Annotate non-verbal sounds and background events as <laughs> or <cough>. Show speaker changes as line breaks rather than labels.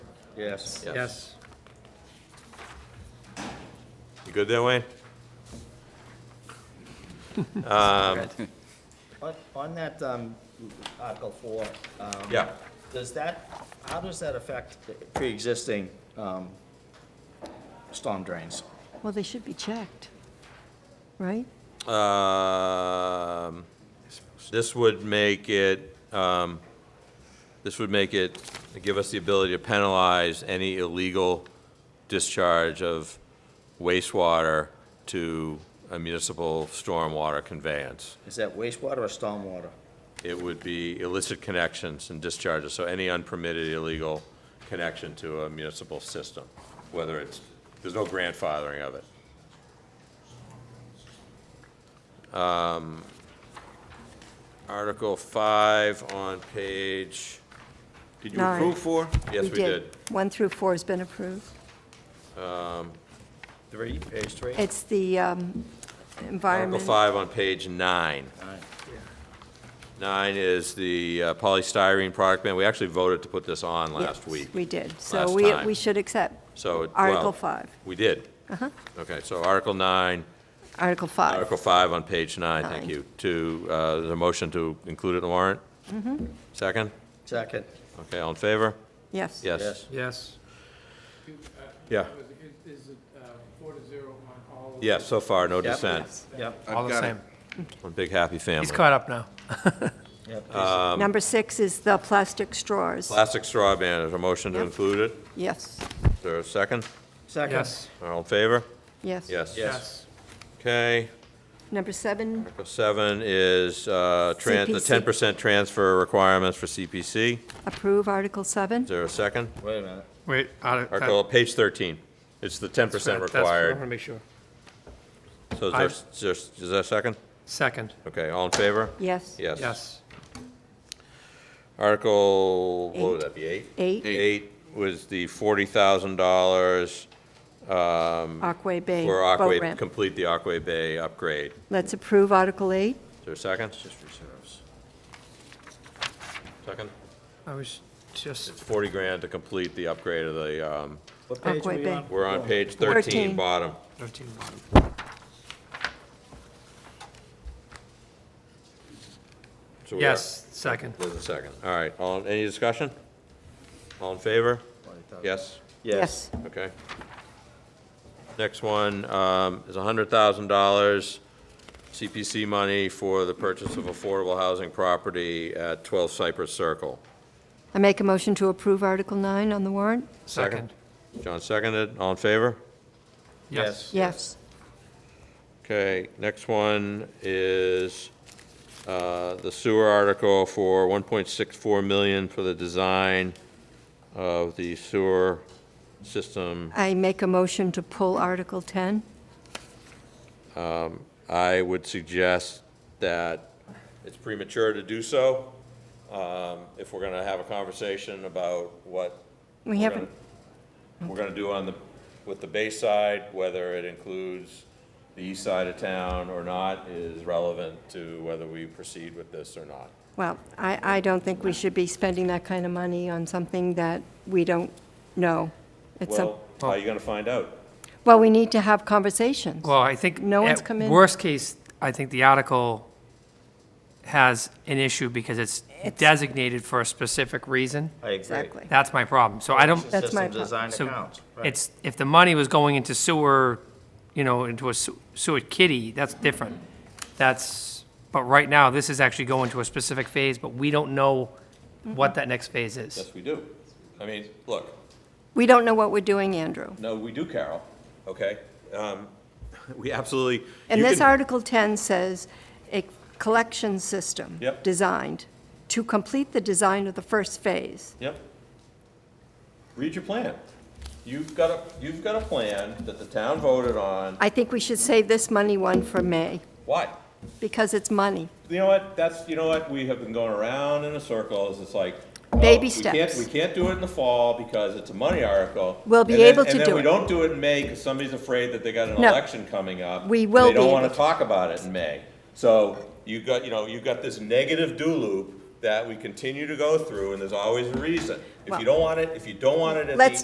Yes.
Yes.
You good there, Wayne?
On- On that um, Article 4. um,
Yeah.
Does that, how does that affect the pre-existing um, storm drains?
Well, they should be checked, right?
Um, This would make it, um, this would make it, give us the ability to penalize any illegal discharge of wastewater to a municipal stormwater conveyance.
Is that wastewater or stormwater?
It would be illicit connections and discharges, so any unpermitted illegal connection to a municipal system, whether it's, there's no grandfathering of it. Um, Article five on page, did you
Nine.
approve four? Yes, we did.
One through four has been approved.
Three, page three?
It's the um,
Article
environment.
five on page nine.
All right.
Nine is the uh, polystyrene product ban. We actually voted to put this on last
Yes,
week.
We did. So
last
we,
time.
we should accept
So, it- well.
Article five.
We did. Uh-huh. Okay, so Article 9,
Article five.
Article 5 on page 9, thank
Nine.
you, to, uh, the motion to include it in the warrant? Mm-hmm. Second?
Second,
Okay, all in favor?
Yes.
Yes.
yes.
Yes.
Yeah.
Is it uh, four to zero on all? of
Yes, so far, no
Yep.
dissent.
Yep,
All the same.
One big happy family.
He's caught up now.
yep.
um,
Number six is the plastic straws.
Plastic straw ban, is there a motion to
Yep.
include it?
Yes,
Is there a second?
Second.
Yes.
All in favor?
yes.
Yes.
Yes.
Okay,
Number seven,
Article 7 is, uh, tran, the
CPC.
10% transfer requirements for CPC.
approve Article seven.
Is there a second?
Wait a minute.
Wait. I- that-
Article, page 13. It's the 10%
that's- I
required.
want to make sure.
So is there, is there- is there a second?
Second.
Okay, all in favor?
Yes.
Yes.
Yes.
Article, what would
Eight.
that be, eight?
Eight,
Eight was the forty thousand dollars
Aquay Bay
for
boat
Aquay,
ramp.
complete the Aquay Bay upgrade.
Let's approve Article eight.
Is there a second?
Just reserves.
Second?
I was just,
It's forty grand to complete the upgrade of the, um,
What page are
Aquay
we
Bay.
on?
we're on page thirteen,
Thirteen.
bottom.
13 bottom.
So we are-
Yes, second.
There's a second. All right, all, any discussion? All in favor? Yes?
Yes.
Okay. Next one um, is $100,000 CPC money for the purchase of affordable housing property at 12 Cypress Circle.
I make a motion to approve Article nine on the warrant.
Second.
John seconded, all in favor?
Yes.
Yes.
Okay, next one is uh, the sewer article for 1.64 million for the design of the sewer system.
I make a motion to pull Article ten.
I would suggest that it's premature to do so. um, If we're going to have a conversation about what.
We
we're
haven't,
gonna- We're going to do on the, with the bay side, whether it includes the east side of town or not is relevant to whether we proceed with this or not.
well, I, I don't think we should be spending that kind of money on something that we don't know. It's some,
Well, how are you going to find out?
well, we need to have conversations.
Well, I think.
No one's
at
come in.
Worst case, I think the article has an issue because it's designated for a specific reason.
I agree.
Exactly.
That's my problem. So I don't,
That's my
System design
So
account. right.
It's, if the money was going into sewer, you know, into a sew- sewer kitty, that's different. That's, but right now, this is actually going to a specific phase, but we don't know what that next phase is.
Yes, we do. I mean, look,
We don't know what we're doing, Andrew.
no, we do, Carol, okay? Um, <laughs> We absolutely.
And
you
this
can-
Article 10 says a collection system.
Yep.
Designed to complete the design of the first phase.
Yep. Read your plan. You've got a, you've got a plan that the town voted on.
I think we should save this money one for May,
Why?
because it's money.
You know what? That's, you know what? We have been going around in a circle. It's like. oh,
Baby
we can't-
steps.
We can't do it in the fall because it's a money article.
We'll be
And then-
able to
And then
do
we
it.
don't do it in May because somebody's afraid that they got an
No.
election coming up.
We
and
will
They
be
don't want to
able to.
talk about it in May. So you've got, you know, you've got this negative do loop that we continue to go through and there's always a reason. If
Well-
you don't want it, if you don't want it at the
Let's